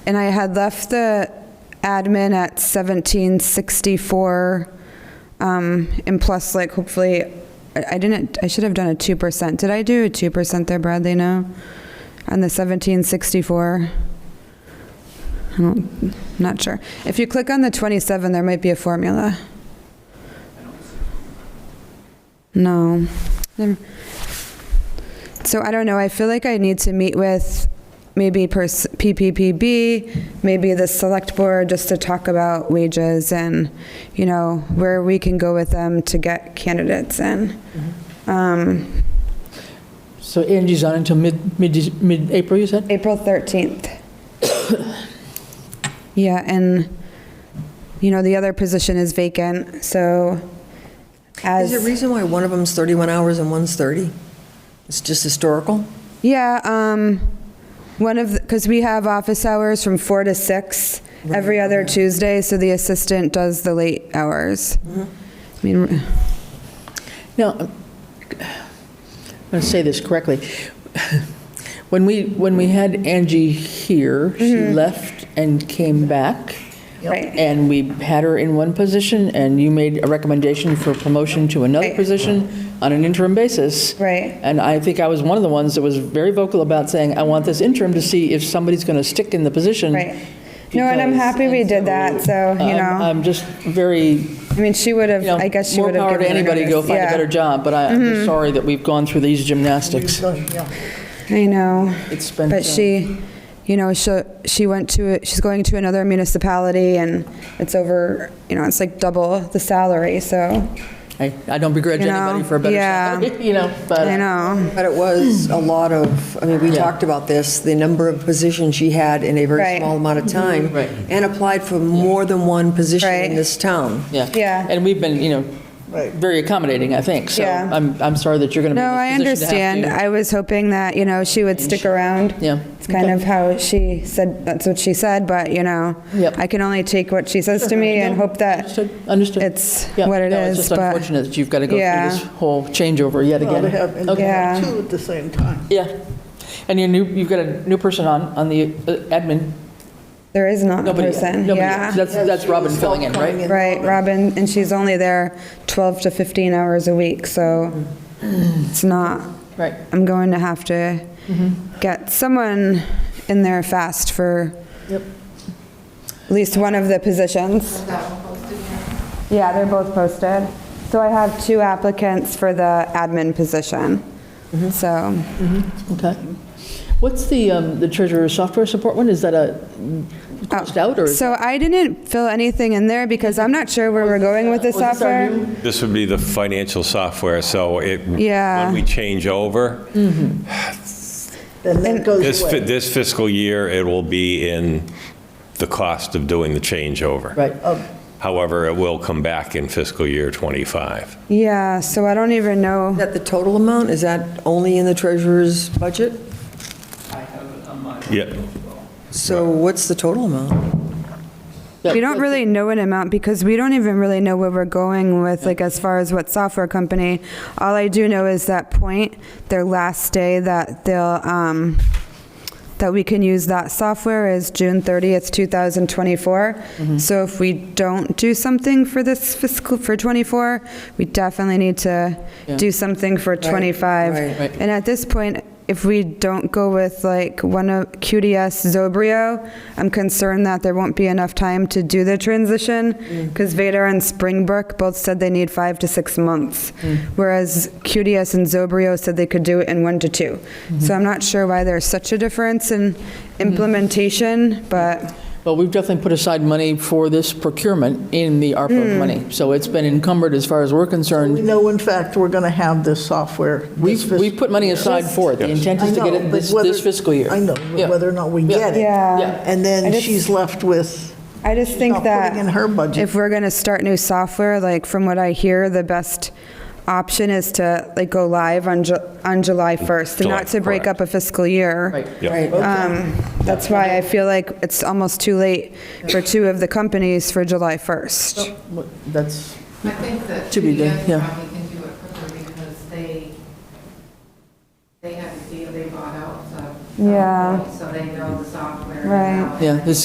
And I had left the admin at 1764, um, and plus like hopefully, I I didn't, I should have done a 2%. Did I do a 2% there, Bradley, no? On the 1764? I don't, not sure. If you click on the 27, there might be a formula. No. Never- So I don't know, I feel like I need to meet with maybe pers- PPPB, maybe the select board, just to talk about wages and, you know, where we can go with them to get candidates in. Um, So Angie's on until mid, mid, mid-April, you said? April 13th. Yeah, and, you know, the other position is vacant, so as. Is there a reason why one of them's 31 hours and one's 30? It's just historical? Yeah, um, one of, because we have office hours from four to six every other Tuesday, so the assistant does the late hours. I mean, Now, I'm going to say this correctly. When we, when we had Angie here, she left and came back. Mm-hmm. Right. And we had her in one position, and you made a recommendation for promotion to another Right. position on an interim basis. Right. And I think I was one of the ones that was very vocal about saying, I want this interim to see if somebody's going to stick in the position. Right. No, and I'm because- happy we did that, so, you I'm- know, I'm just very I mean, she would have, um, you know, I guess she would have More power to given her anybody, go notice. find a better Yeah, Mm-hmm. job, but I- I'm just sorry that we've gone through these gymnastics. I know. It's been, But she, you know, she, she went to, she's going to another municipality and it's over, you know, it's like double the salary, so, I I don't begrudge You know, anybody for a better yeah. salary, you know, but. I know. But it was Hmm. a lot of, I mean, we Yeah. talked about this, the number of positions she had in a Right. very small amount of time. Right. And applied for more than one position Right. in this town. Yeah. Yeah. And we've been, you know, very accommodating, I think, so Yeah. I'm, I'm sorry that you're going to be No, I in this position to have understand. to- I was hoping that, you know, she would stick around. Yeah. It's kind of how she said, that's what she said, but, you know, Yep. I can only take what she says to me and hope that Understood, understood. it's Yeah, what it no, It's is, just but, unfortunate that you've got to go Yeah. through this whole changeover yet Well, again. to have, and to Okay. Yeah. have two at the same time. Yeah, and you're new, you've got a new person on, on the uh, admin, there is not a nobody yet. person, Nobody yet. yeah. That's, that's Robin filling in, right? Right, Robin, and she's only there 12 to 15 hours a week, so Mm. it's not, Right. I'm going to have to get someone in there fast for Yep. at least one of the positions. Yeah, they're both posted. So I have two applicants for the admin position. So, Okay. What's the, um, the treasurer software support one? Is that a crossed out or? is oh, so I didn't fill anything in there because I'm not sure where we're going with this was this software. our new- This would be the financial software, so it, Yeah. when we change over, Then that goes this fi- away. this fiscal year, it will be in the cost of doing the changeover. Right. However, it will come back in fiscal year '25. Yeah, so I don't even Is know. that the total amount? Is that only in the treasurer's budget? Yeah, So what's the total amount? We don't really know an amount because we don't even really know where we're going with, like, as far as what software company. All I do know is that point, their last day that they'll, um, that we can use that software is June 30th, Mm-hmm. 2024. So if we don't do something for this fiscal, for '24, we definitely need to do something for '25. right, right. And at this point, if we don't go with like one of QDS Zobrio, I'm concerned that there won't be enough time to do the transition because Vader and Springbrook both said they need five to six months, whereas QDS and Zobrio said they could do it in one to two. So I'm not sure why there's such a difference in implementation, but Well, we've definitely put aside money for this procurement in the ARPA money. So it's been encumbered as far as we're Hmm. We concerned. know, in fact, we're going to have this software. We've, we've put money aside for it. The intent is to get it this this fiscal year. I know, Yeah. but whether or not we get it. yeah. Yeah. And I then just- she's left with, I just think not that. putting in her budget. If we're going to start new software, like from what I hear, the best option is to like go live on, Ju- on July 1st, and July, not to break up correct. a fiscal year. Right. yeah. Um, That's why I feel like it's almost too late for two of the companies for July 1st. What- That's, I think that To be done, PDS yeah. probably can do it quicker because they, they have the deal they bought out, so. Yeah. So they know the software figure it Right. out. Yeah, this